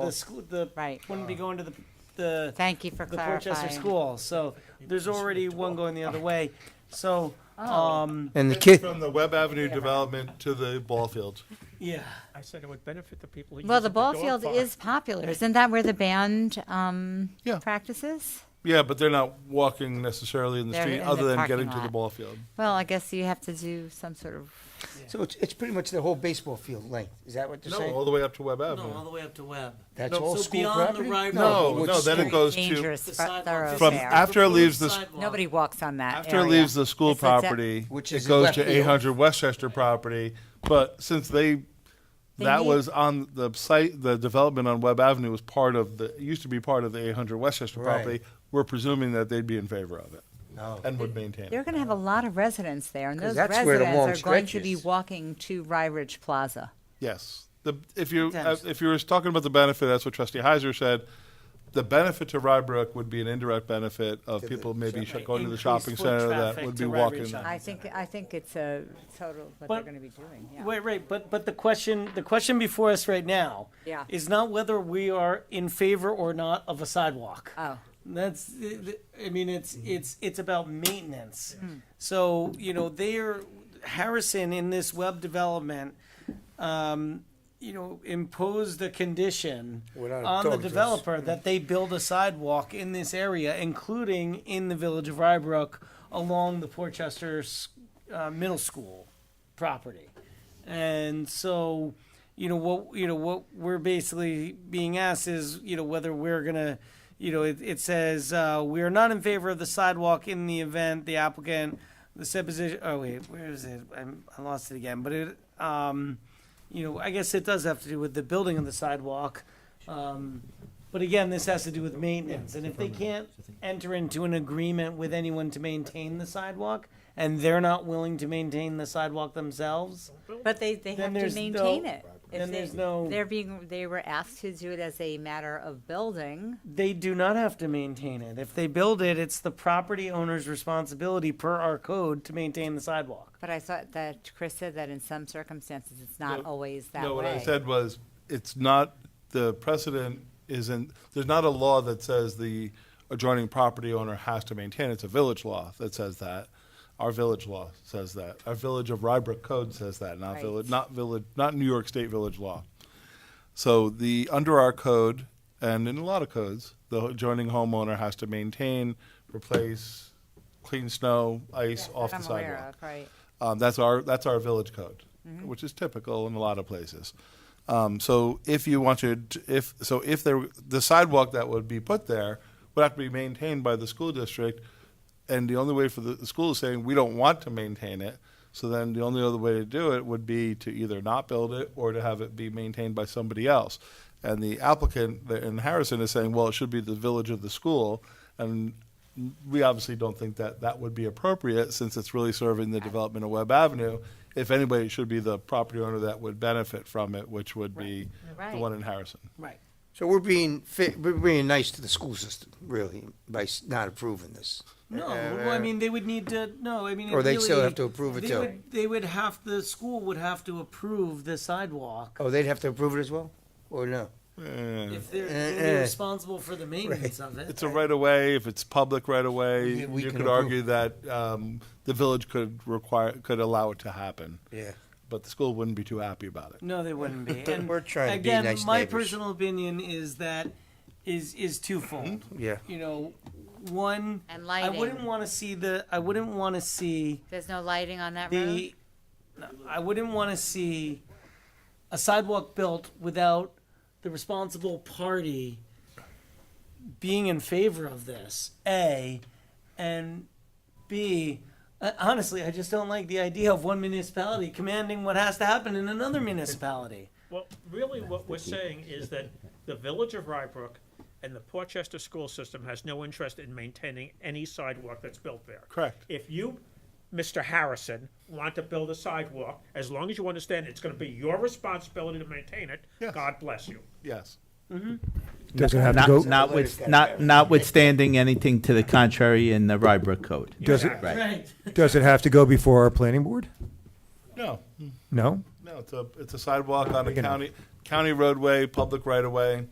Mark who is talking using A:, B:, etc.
A: the
B: school.
A: school, the,
B: Right.
A: wouldn't be going to the, the,
B: Thank you for
A: the Portchester
B: clarifying.
A: school. So there's already one going the other way. So,
B: Oh.
A: um,
C: And the
D: It's
C: kid,
D: From the Web Avenue development to the ball field.
A: yeah,
E: I said it would benefit the people who
B: Well,
E: use
B: the
E: it,
B: ball
E: dog
B: field
E: park.
B: is popular. Isn't that where the band um,
D: Yeah.
B: practices?
D: Yeah, but they're not walking necessarily in the
B: They're
D: street
B: in
D: other
B: the
D: than
B: parking
D: getting to the
B: lot.
D: ball field.
B: Well, I guess you have to do some sort of,
C: so it's, it's pretty much the whole baseball field length. Is that what you're
D: No, all
C: saying?
D: the way up to Web
F: No, all
D: Avenue.
F: the way up to Webb.
C: That's
D: no.
C: all
F: So
C: school
F: beyond the
C: property?
F: right
D: No,
C: what's
D: no, then
C: street?
D: it goes to,
B: dangerous
F: The
B: fro-
F: sidewalk is
D: from
B: thoroughfare.
D: after it leaves the,
F: Sidewalk.
B: Nobody walks on that
D: after it
B: area.
D: leaves the school
B: It's like that-
D: property,
C: Which is
D: it
C: in
D: goes
C: left
D: to
C: field.
D: eight hundred Westchester property. But since they,
B: They
D: that
B: need-
D: was on the site, the development on Web Avenue was part of the, used to be part of the eight hundred Westchester
C: Right.
D: property. We're presuming that they'd be in favor of it
C: No.
D: and would maintain it.
B: They're going to have a lot of residents there, and
C: 'Cause
B: those
C: that's where the long
B: residents are going
C: stretch
B: to be
C: is.
B: walking to Rye Ridge Plaza.
D: Yes. The, if you uh,
A: Sometimes.
D: if you were talking about the benefit, that's what Trustee Heiser said. The benefit to Rybrook would be an indirect benefit of
C: To the
D: people maybe
C: shopping-
D: sh- going to the
A: Increased
D: shopping
A: foot
D: center that
A: traffic
D: would be
A: to Rybrook
D: walking.
A: shopping.
B: I think, I think it's a total, what
A: But-
B: they're going to be doing, yeah.
A: Right, right, but, but the question, the question before us right now
B: Yeah.
A: is not whether we are in favor or not of a sidewalk.
B: Oh.
A: That's, I mean, it's,
F: Mm-hmm.
A: it's, it's about maintenance.
B: Mm.
A: So, you know, they're, Harrison in this web development, um, you know, imposed a condition
C: Without a
A: on the
C: dog, Mm. just-
A: developer that they build a sidewalk in this area, including in the village of Rybrook along the Portchester uh, Middle School property. And so, you know, what, you know, what we're basically being asked is, you know, whether we're going to, you know, it, it says, uh, we are not in favor of the sidewalk in the event the applicant, the said position, oh wait, where is it? I'm, I lost it again, but it, um, you know, I guess it does have to do with the building of the sidewalk. Um, but again, this has to do with maintenance, and if they can't enter into an agreement with anyone to maintain the sidewalk, and they're not willing to maintain the sidewalk themselves,
B: But they, they
A: Then
B: have to
A: there's
B: maintain
A: no-
B: it. If
A: then
B: they-
A: there's no-
B: They're being, they were asked to do it as a matter of building.
A: they do not have to maintain it. If they build it, it's the property owner's responsibility per our code to maintain the sidewalk.
B: But I thought that Chris said that in some circumstances, it's not
D: No,
B: always that
D: No, what I
B: way.
D: said was it's not the precedent isn't there's not a law that says the adjoining property owner has to maintain. It's a village law that says that. Our village law says that. Our village of Rybrook code says that, not
B: Right.
D: village, not village, not New York State village law. So the, under our code, and in a lot of codes, the adjoining homeowner has to maintain, replace, clean snow, ice
B: That
D: off the
B: I'm aware
D: sidewalk.
B: of, Right.
D: Um, that's our that's our village code, which is typical in a lot of places. Um, so if you wanted, if so, if there the sidewalk that would be put there would have to be maintained by the school district, and the only way for the, the school is saying we don't want to maintain it. So then the only other way to do it would be to either not build it or to have it be maintained by somebody else. And the applicant there in Harrison is saying, well, it should be the village of the school, and we obviously don't think that that would be appropriate since it's really serving the development of Webb Avenue. If anybody, it should be the property owner that would benefit from it, which would be
B: Right.
D: the one in Harrison.
A: Right.
C: So we're being, fi- we're being nice to the school system, really, by s- not approving this.
A: No,
C: Uh,
A: well, I mean, they would need to, no, I mean.
C: Or they still
A: ideally,
C: have to approve it
A: they
C: too.
A: would- They would have, the school would have to approve the sidewalk.
C: Oh, they'd have to approve it as well? Or no?
D: Eh.
A: If they're,
C: Eh,
A: they're
C: eh.
A: responsible for the maintenance of it.
D: It's a right of way. If it's public right of way,
C: We- we
D: you
C: can
D: could argue that um, the village could require could allow it to happen,
C: Yeah.
D: but the school wouldn't be too happy about it.
A: No, they wouldn't be. And
C: We're trying to be
A: again,
C: nice
A: my
C: neighbors.
A: personal opinion is that is is twofold.
C: Yeah.
A: You know, one,
B: And
A: I
B: lighting.
A: wouldn't want to see the. I wouldn't want to see
B: There's no lighting on that road?
A: the. no, I wouldn't want to see a sidewalk built without the responsible party being in favor of this. A and B. uh, Honestly, I just don't like the idea of one municipality commanding what has to happen in another municipality.
E: Well, really, what we're saying is that the village of Rybrook and the Portchester school system has no interest in maintaining any sidewalk that's built there.
D: Correct.
E: If you, Mr. Harrison, want to build a sidewalk, as long as you understand it's gonna be your responsibility to maintain it,
D: Yes.
E: God bless you.
D: Yes.
G: Does it have to
H: Not-
G: go,
C: Well,
H: Not,
C: it's
H: with,
C: gotta
H: not,
C: go.
H: notwithstanding anything to the contrary in the Rybrook code.
G: does it,
E: Yeah.
H: Right.
A: Right.
G: does it have to go before our planning board?
D: No.
G: No?
D: No. It's a it's a sidewalk on a
G: Big enough.
D: county county roadway, public right of way.